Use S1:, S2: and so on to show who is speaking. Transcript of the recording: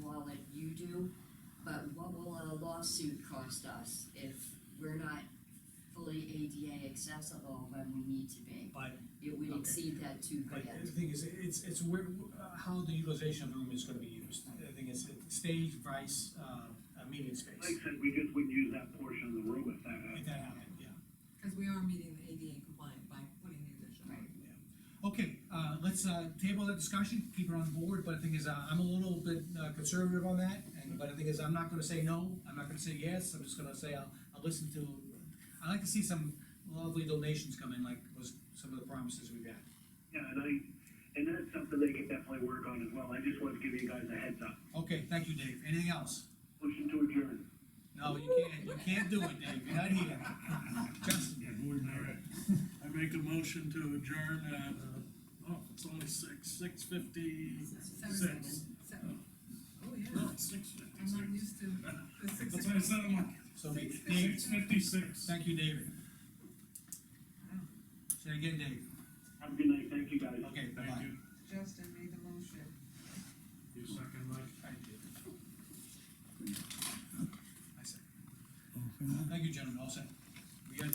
S1: But what will a lawsuit cost us if we're not fully ADA accessible when we need to be?
S2: But,
S1: It would
S2: Okay.
S1: exceed that two
S2: but
S1: grand.
S2: the thing is, it's, it's where, uh, how the utilization of the room is gonna be used. The thing is, it's stage, vice, uh, a meeting space,
S3: Like I said, we just wouldn't use that portion of the room if that
S2: if
S3: happened.
S2: that happened, yeah.
S4: Cause we are meeting the ADA compliant by putting the addition on.
S1: Right.
S2: Okay, uh, let's, uh, table that discussion, keep it on board, but the thing is, uh, I'm a little bit uh, conservative on that, and, but the thing is, I'm not gonna say no, I'm not gonna say yes, I'm just gonna say, I'll, I'll listen to, I like to see some lovely donations come in, like was some of the promises we've had.
S3: Yeah, and I, and that's something they could definitely work on as well. I just wanted to give you guys a heads up.
S2: Okay, thank you, Dave, anything else?
S3: Motion to adjourn.
S2: No, you can't, you can't do it, Dave, you're not here. Justin,
S5: All right, I make a motion to adjourn at, uh, oh, it's only six, six
S4: Seven,
S5: fifty-six.
S4: seven, seven. Oh,
S5: No,
S4: yeah,
S5: it's six
S4: I'm not
S5: fifty-six.
S4: used to the six.
S5: That's what I said, I'm like,
S2: so, we- Dave,
S5: six fifty-six.
S2: thank you, David. Say again, Dave,
S3: Have a good night. Thank you, guys.
S2: okay,
S5: Thank
S2: bye-bye.
S5: you.
S4: Justin made the motion.
S5: You second, Mike?
S2: Thank you. I see. Thank you, gentlemen, all set.